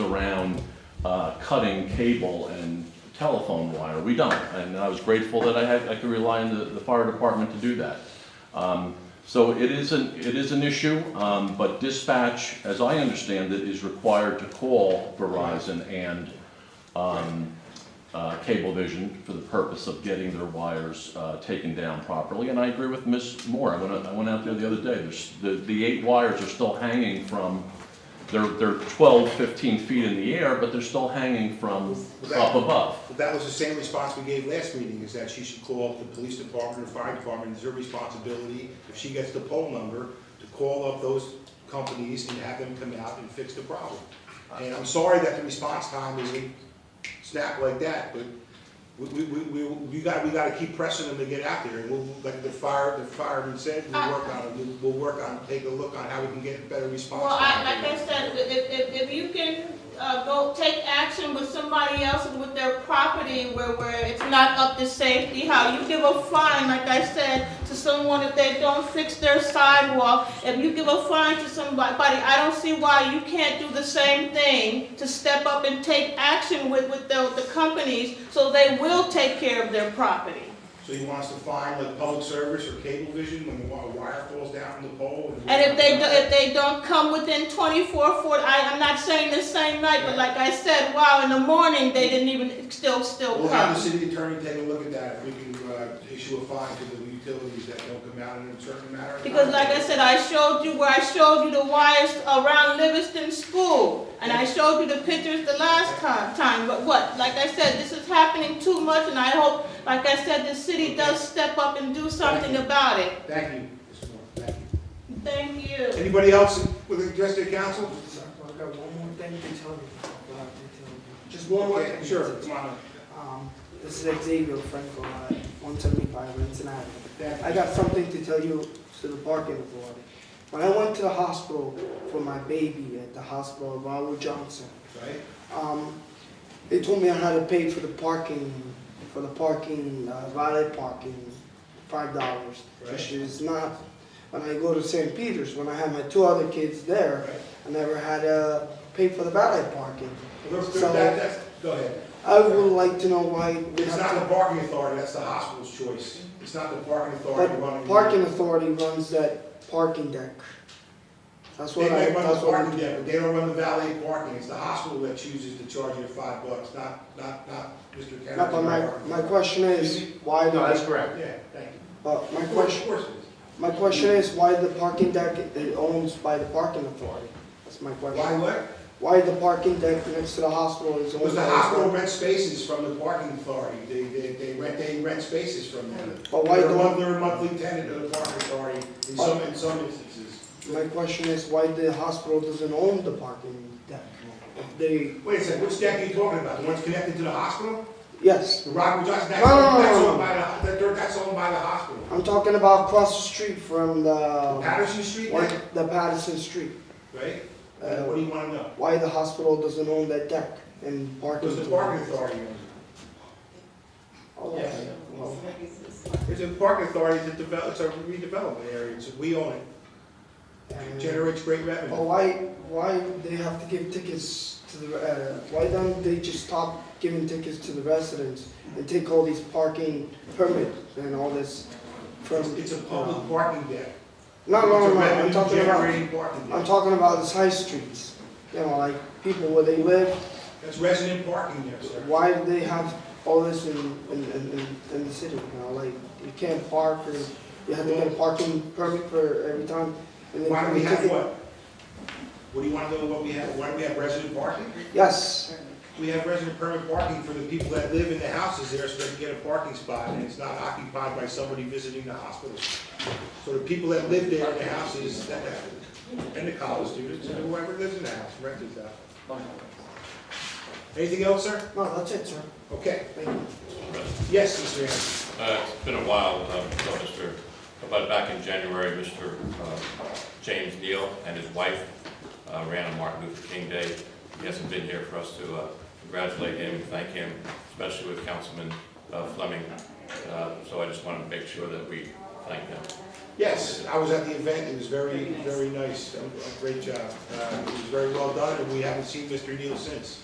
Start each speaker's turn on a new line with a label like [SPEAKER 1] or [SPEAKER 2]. [SPEAKER 1] around uh, cutting cable and telephone wire. We don't, and I was grateful that I had, I could rely on the, the fire department to do that. Um, So it is an, it is an issue, um, but dispatch, as I understand it, is required to call Verizon and um, uh, Cablevision for the purpose of getting their wires uh, taken down properly. And I agree with Ms. Moore, I went, out- I went out there the other day, there's, the, the eight wires are still hanging from, they're, they're 12, 15 feet in the air, but they're still hanging from up above.
[SPEAKER 2] But that was the same response we gave last meeting, is that she should call up the police department or fire department, it's her responsibility, if she gets the poll number, to call up those companies and have them come out and fix the problem. And I'm sorry that the response time is a snap like that, but we, we, we, we- we gotta, we gotta keep pressing them to get out there. And we'll, like the fire, the fireman said, we'll work on it, We'll- we'll work on, take a look on how we can get a better response.
[SPEAKER 3] Well, I,
[SPEAKER 2] time.
[SPEAKER 3] like I said, if, if, if you can, uh, go take action with somebody else and with their property where, where it's not up to safety, how you give a fine, like I said, to someone if they don't fix their sidewalk, if you give a fine to somebody, I don't see why you can't do the same thing to step up and take action with, with the, the companies, so they will take care of their property.
[SPEAKER 2] So you want us to find like public service or cable vision when the wi- wire falls down from the pole?
[SPEAKER 3] And if they, do- if they don't come within 24, 40, I, I'm not saying the same night, but like I said, wow, in the morning, they didn't even, still, still
[SPEAKER 2] We'll have the
[SPEAKER 3] come.
[SPEAKER 2] city attorney take a look at that, if we can, uh, issue a fine to the utilities that don't come out in a certain matter. of
[SPEAKER 3] Because
[SPEAKER 2] time.
[SPEAKER 3] like I said, I showed you where I showed you the wires around Livingston School, and I showed you the pictures the last time, time, but what? Like I said, this is happening too much, and I hope, like I said, the city does step up and do something about it.
[SPEAKER 2] Thank you, Mr. Moore, thank you.
[SPEAKER 3] Thank you.
[SPEAKER 2] Anybody else with the address to the council?
[SPEAKER 4] I've got one more thing to tell you. uh, to tell you.
[SPEAKER 2] Just one more,
[SPEAKER 4] Okay.
[SPEAKER 2] sure, come on,
[SPEAKER 4] Um, This is Xavier Franco, uh, 175 Renton Avenue.
[SPEAKER 2] thank
[SPEAKER 4] I
[SPEAKER 2] you.
[SPEAKER 4] got something to tell you to the parking authority. When I went to the hospital for my baby at the hospital, Robert Johnson,
[SPEAKER 2] Right?
[SPEAKER 4] um, they told me I had to pay for the parking, for the parking, uh, valet parking, five dollars, which
[SPEAKER 2] Right.
[SPEAKER 4] is not, when I go to St. Peter's, when I had my two other kids there,
[SPEAKER 2] Right.
[SPEAKER 4] I never had to pay for the valet parking.
[SPEAKER 2] Well, that's-
[SPEAKER 4] So-
[SPEAKER 2] that- that's- Go ahead.
[SPEAKER 4] I would like to know why we
[SPEAKER 2] It's
[SPEAKER 4] have
[SPEAKER 2] not the
[SPEAKER 4] to,
[SPEAKER 2] parking authority, that's the hospital's choice. It's not the parking authority
[SPEAKER 4] but
[SPEAKER 2] running.
[SPEAKER 4] parking authority runs that parking deck. That's
[SPEAKER 2] They
[SPEAKER 4] what I,
[SPEAKER 2] may run the
[SPEAKER 4] that's what
[SPEAKER 2] parking
[SPEAKER 4] we,
[SPEAKER 2] deck, but they don't run the valet parking, it's the hospital that chooses to charge you five bucks, not, not, not Mr. Kennedy.
[SPEAKER 4] no, but my, my question is, why do,
[SPEAKER 5] No, that's
[SPEAKER 4] the-
[SPEAKER 5] correct.
[SPEAKER 2] Yeah, thank you.
[SPEAKER 4] but my
[SPEAKER 2] Of course,
[SPEAKER 4] question,
[SPEAKER 2] of course it is.
[SPEAKER 4] my question is, why the parking deck is owned by the parking authority? That's my
[SPEAKER 2] Why
[SPEAKER 4] question.
[SPEAKER 2] what?
[SPEAKER 4] Why the parking deck next to the hospital is owned by
[SPEAKER 2] Because
[SPEAKER 4] the
[SPEAKER 2] the hospital
[SPEAKER 4] parking?
[SPEAKER 2] rents spaces from the parking authority, they, they, they rent, they rent spaces from them.
[SPEAKER 4] But why
[SPEAKER 2] They're a
[SPEAKER 4] don't-
[SPEAKER 2] mon- They're a monthly tenant of the parking authority in
[SPEAKER 4] But-
[SPEAKER 2] some, in some instances.
[SPEAKER 4] My question is, why the hospital doesn't own the parking deck? If they,
[SPEAKER 2] Wait a second, which deck are you talking about, the ones connected to the hospital?
[SPEAKER 4] yes,
[SPEAKER 2] The Rockwood Johnson, that's,
[SPEAKER 4] No, no, no,
[SPEAKER 2] that's
[SPEAKER 4] no,
[SPEAKER 2] owned
[SPEAKER 4] no.
[SPEAKER 2] by the, that- that's owned by the hospital.
[SPEAKER 4] I'm talking about across the street from the,
[SPEAKER 2] Patterson Street
[SPEAKER 4] one-
[SPEAKER 2] deck,
[SPEAKER 4] the Patterson Street.
[SPEAKER 2] right?
[SPEAKER 4] Uh,
[SPEAKER 2] And What do you wanna know?
[SPEAKER 4] why the hospital doesn't own that deck and parking.
[SPEAKER 2] Because the parking authority owns it.
[SPEAKER 4] Oh,
[SPEAKER 2] Yeah.
[SPEAKER 4] okay. Well,
[SPEAKER 2] It's a parking authority that develops, it's a redevelopment area, it's, we own it, it
[SPEAKER 4] and-
[SPEAKER 2] generates great
[SPEAKER 4] But
[SPEAKER 2] revenue.
[SPEAKER 4] why, why they have to give tickets to the, uh, why don't they just stop giving tickets to the residents and take all these parking permits and all this from? uh,
[SPEAKER 2] It's a public parking deck.
[SPEAKER 4] No, no, no, no,
[SPEAKER 2] It's a
[SPEAKER 4] I'm talking about,
[SPEAKER 2] revenue-generating parking
[SPEAKER 4] I'm
[SPEAKER 2] deck.
[SPEAKER 4] talking about these high streets, you know, like people where they live,
[SPEAKER 2] That's resident parking there, sir.
[SPEAKER 4] why do they have all this in, in, in, in- in the city, you know, like, you can't park, or you have to get a parking permit for every time? and then
[SPEAKER 2] Why do
[SPEAKER 4] you
[SPEAKER 2] we have
[SPEAKER 4] take it-
[SPEAKER 2] what? What do you want to know what we have, why do we have resident parking?
[SPEAKER 4] Yes,
[SPEAKER 2] We have resident permit parking for the people that live in the houses there, so they can get a parking spot, and it's not occupied by somebody visiting the hospital. So the people that live there in the houses, that, and the college students, and whoever lives in the house, rent is out. Anything else, sir?
[SPEAKER 4] no, that's it, sir,
[SPEAKER 2] Okay,
[SPEAKER 4] thank you.
[SPEAKER 2] yes, Mr. Anderson.
[SPEAKER 6] Uh, It's been a while, um, so Mr., but back in January, Mr. uh, James Neal and his wife uh, ran a Martin Luther King Day. He hasn't been here for us to uh, congratulate him, thank him, especially with Councilman uh, Fleming. Uh, So I just wanted to make sure that we thank them.
[SPEAKER 2] Yes, I was at the event, it was very, very nice, Um, great job. Uh, It was very well done, and we haven't seen Mr. Neal since.